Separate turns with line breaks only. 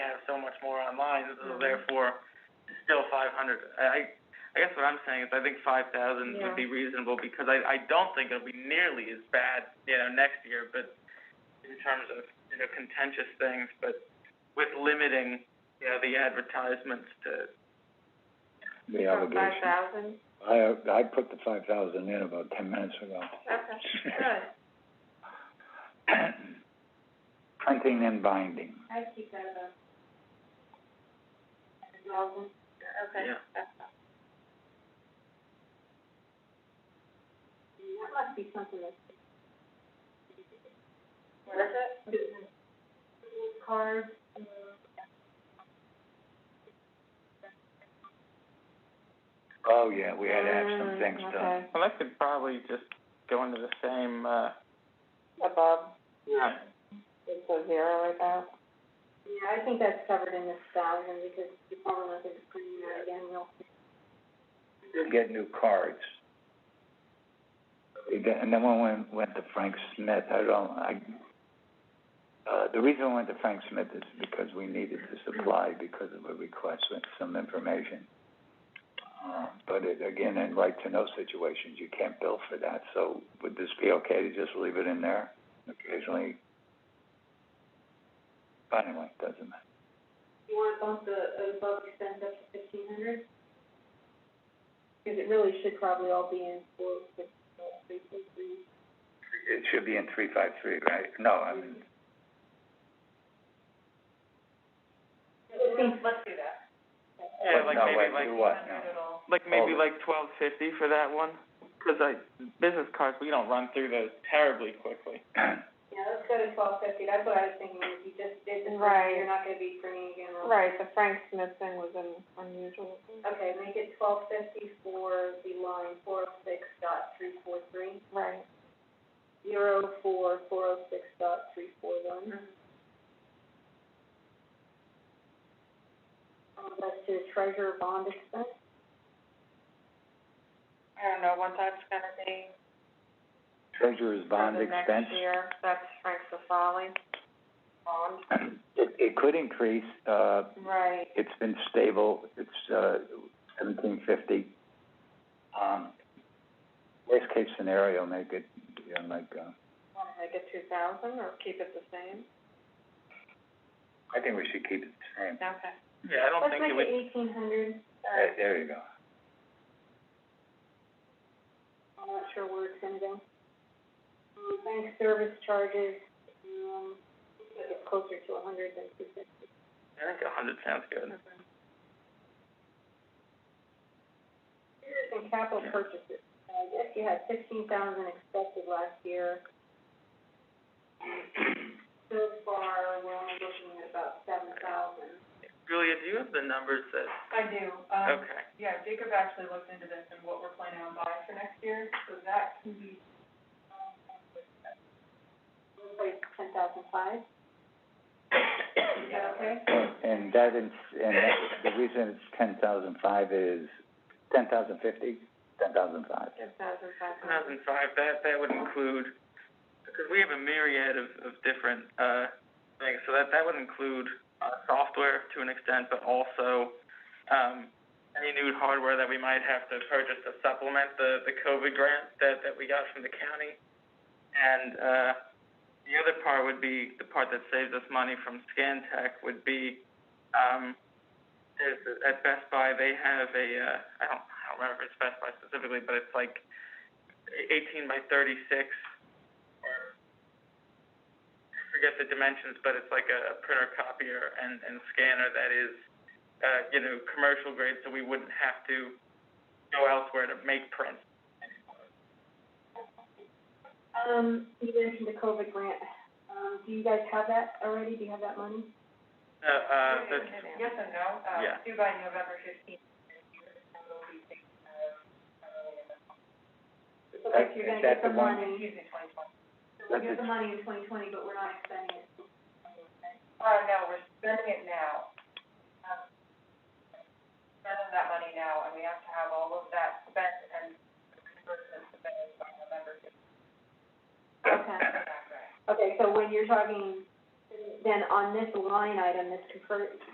online, so
Mm-hmm.
therefore, it's still five hundred. I, I guess what I'm saying is I think five thousand
Yeah.
would be reasonable, because I, I don't think it'll be nearly as bad, you know, next year, but in terms of, you know, contentious things, but with limiting, you know, the advertisements to,
the
From Five
allegation.
thousand,
I, I put the five thousand in about ten minutes ago.
okay, good.
Printing and binding.
I keep that about. Thousand, okay.
Yeah.
that's fine. That must be something that's. What is it? Business cards.
Oh, yeah, we had to have some
Mm,
things done.
okay.
Well, that could probably just go into the same, uh.
Above,
Yeah.
it's a zero right now. Yeah, I think that's covered in this thousand, because you probably want to clean that again real quick.
Did get new cards. We got- And then when we went to Frank Smith, I don't, I, uh, the reason we went to Frank Smith is because we needed to supply because of a request with some information. Uh, but it, again, in right-to-know situations, you can't bill for that, so would this be okay to just leave it in there occasionally? But anyway, doesn't matter.
You wanna bump the above expense up to fifteen hundred? Cause it really should probably all be in four, six, three, six, three.
It should be in three-five-three, right? No, I mean,
let's do that.
Yeah, like
no,
maybe
wait,
like-
do what now?
Like maybe
Hold it.
like twelve fifty for that one, 'cause I, business cards, we don't run through those terribly quickly.
Yeah, let's go to twelve fifty, that's what I was thinking, if you just did this,
Right.
you're not gonna be bringing again.
Right, the Frank Smith thing was an unusual.
Okay, make it twelve fifty for the line four oh six dot three four three,
Right.
zero four four oh six dot three four one.
Mm-hmm.
Um, that's to treasurer bond expense.
I don't know what that's gonna be
Treasurer's
for
bond
the
expense.
next year. That's Frank Sefali. Bond.
It, it could increase, uh,
Right.
it's been stable, it's, uh, seventeen fifty. Um, worst case scenario, make it, you know, like, uh,
Wanna make it two thousand or keep it the same?
I think we should keep it the same.
Okay.
Yeah, I don't
Let's
think
make
it
it
would, Uh,
eighteen hundred,
Uh,
There, there you go.
I'm not sure where it's gonna go. Um, bank service charges, um, it's closer to a hundred than two fifty.
I think a hundred sounds good.
And capital purchases, I guess you had fifteen thousand expected last year. So far, we're only looking at about seven thousand.
Julia, do you have the numbers that,
I do, Um,
okay,
yeah, Jacob actually looked into this and what we're planning on buying for next year, so that can be.
Like ten thousand five? Is that okay?
And that is, and that, the reason it's ten thousand five is, ten thousand fifty? Ten thousand five.
Two thousand five
two
hundred.
thousand five, that, that would include, because we have a myriad of, of different, uh, things, so that, that would include, uh, software to an extent, but also, um, any new hardware that we might have to purchase to supplement the, the COVID grant that, that we got from the county. And, uh, the other part would be, the part that saves us money from Scantech would be, um, there's, a- at Best Buy, they have a, uh, I don't, I don't remember if it's Best Buy specifically, but it's like eighteen by thirty-six, or, I forget the dimensions, but it's like a printer copier and, and scanner that is, uh, you know, commercial grade, so we wouldn't have to go elsewhere to make prints.
Um, you mentioned the COVID grant, um, do you guys have that already, do you have that money?
Uh, uh, that's,
Yes and no, Uh,
Yeah.
due by November fifteenth. uh,
Okay, so you're gonna get
That's the
the
one-
money.
in twenty twenty.
So we get the money in twenty twenty, but we're not expending it.
Uh, no, we're spending it now. Um, Spending that money now, and we have to have all of that spent and reimbursement submitted by November fifteenth.
Okay, okay, so when you're talking, then on this line item, this convert,